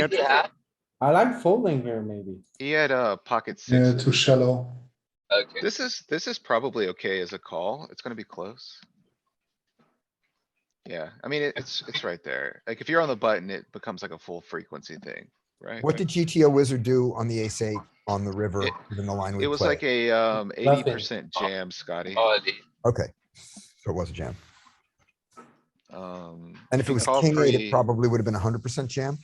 had- Yeah, I like folding here maybe. He had a pocket Yeah, six. too shallow. okay. This is, this is probably okay as a call. It's gonna be close. Yeah, I mean, it- it's, it's right there. Like, if you're on the button, it becomes like a full frequency thing, right? What did GTO wizard do on the ace eight on the river, It- given the line we It was like played? a, um, eighty Nothing. percent jam, Scotty. Oh, the- Okay, so it was a jam. Um. And if it he was called king eight, free- it probably would have been hundred percent jam.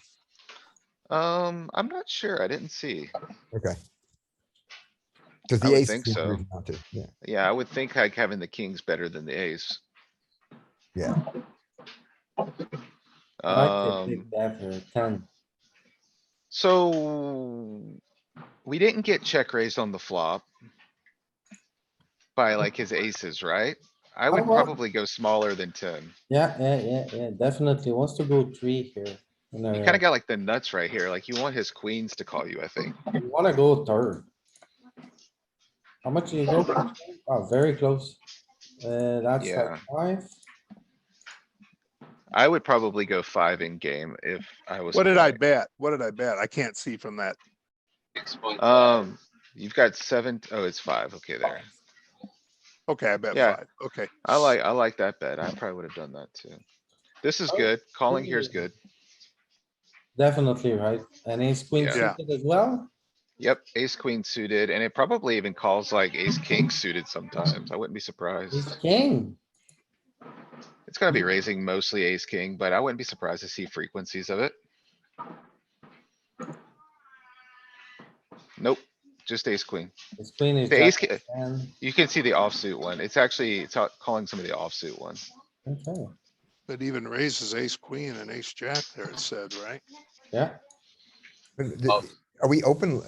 Um, I'm not sure. I didn't see. Okay. Because I the would ace. think seemed so. reasonable to, Yeah, Yeah, I would think like having the king's better than the ace. yeah. I like to Um, take that for a ten. so. We didn't get check raised on the flop. By like his aces, right? I would well- probably go smaller than ten. Yeah, yeah, yeah, yeah, definitely wants to go three here. uh, You know, You kinda got like the nuts right here. Like you want his queens to call you, I think. you wanna go third. How much do you go? for? Oh, very close. Uh, that's Yeah. like five. I would probably go five in game if I was. What did I playing. bet? What did I bet? I can't see from that. six point five. Um, you've got seven. Oh, it's five. Okay, there. Okay, I bet Yeah. five. Okay. I like, I like that bet. I probably would have done that too. This is Oh, good. Calling here is yeah. good. Definitely, right? And ace queen Yeah. Yeah. suited as well? Yep, ace queen suited, and it probably even calls like ace king suited sometimes. I wouldn't be Ace surprised. king. It's gonna be raising mostly ace king, but I wouldn't be surprised to see frequencies of it. Nope, just ace queen. It's queen is. The ace jack ki- and- You can see the offsuit one. It's actually, it's out- calling some of the offsuit ones. Okay, It even raises ace, queen and ace, jack there, it said, right? yeah. But the- Oh. Are we open?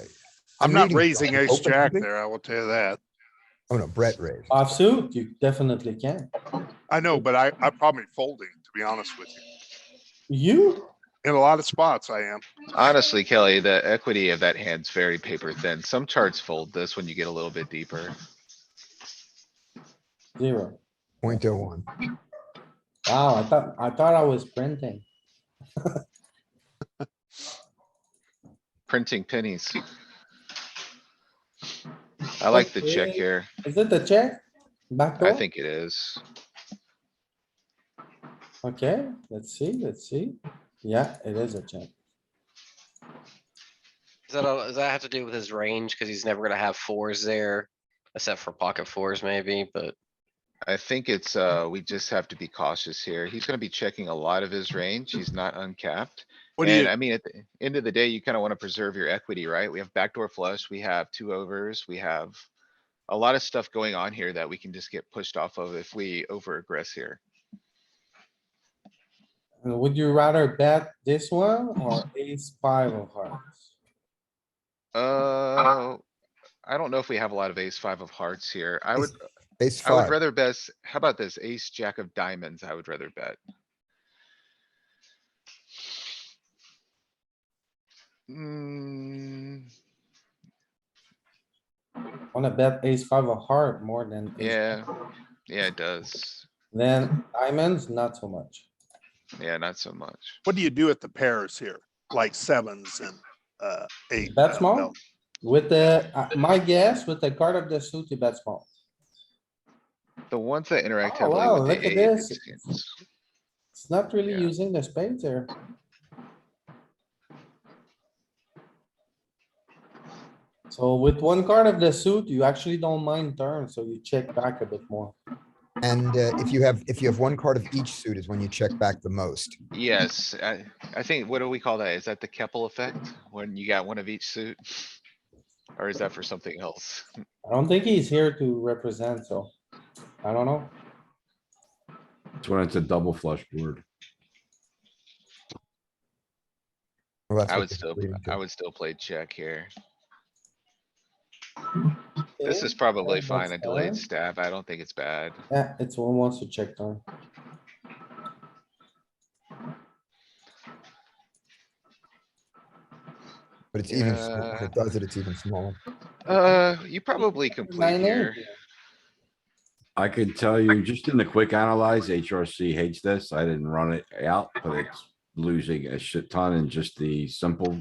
I'm not reading raising something ace, open, jack isn't it? there. I will tell you that. Oh, no, Brett raised. Offsuit, you definitely can. I know, but I, I'm probably folding, to be honest with you. You? In a lot of spots, I am. Honestly, Kelly, the equity of that hand's very paper thin. Some charts fold this when you get a little bit deeper. Zero. Point oh one. Wow, I thought, I thought I was printing. Printing pennies. I like the check Okay. here. Is it the check? Backdoor? I think it is. Okay, let's see, let's see. Yeah, it is a check. Does that, all- does that have to do with his range? Cause he's never gonna have fours there, except for pocket fours maybe, but I think it's, uh, we just have to be cautious here. He's gonna be checking a lot of his range. He's not uncapped. What do And you, I mean, at the end of the day, you kinda wanna preserve your equity, right? We have backdoor flush, we have two overs, we have a lot of stuff going on here that we can just get pushed off of if we over aggress here. And would you rather bet this one or ace five of hearts? Uh, I don't know if we have a lot of ace five of hearts here. I Ace would, Ace I would five. rather bet, how about this? Ace, jack of diamonds, I would rather bet. Mm, Wanna bet ace five of heart more than. ace- yeah, yeah, it does. Then diamonds, not so much. Yeah, not so much. what do you do at the pairs here? Like sevens and, uh, eight? Bet uh, small? no. With the, uh, my guess, with the card of the suit, you bet small. The ones that interact Oh, wow, heavily with look at the eight, it this. seems- It's not really Yeah. using the spades there. So with one card of the suit, you actually don't mind turn, so you check back a bit more. And uh, if you have, if you have one card of each suit is when you check back the most. yes, I, I think, what do we call that? Is that the Keppel effect? When you got one of each suit? Or is that for something else? I don't think he's here to represent, so I don't know. It's when it's a double flush board. Well, that's I what would this is still, leading to. I would still play check here. This is probably that's fine, a delayed fine. stab. I don't think it's bad. Yeah, it's one wants to check turn. But it's even, s- if it Yeah. does it, it's even smaller. Uh, you probably complete Nine eight here. I could tell you, just in the quick analyze, HRC hates this. I didn't run it out, but it's losing a shit ton in just the simple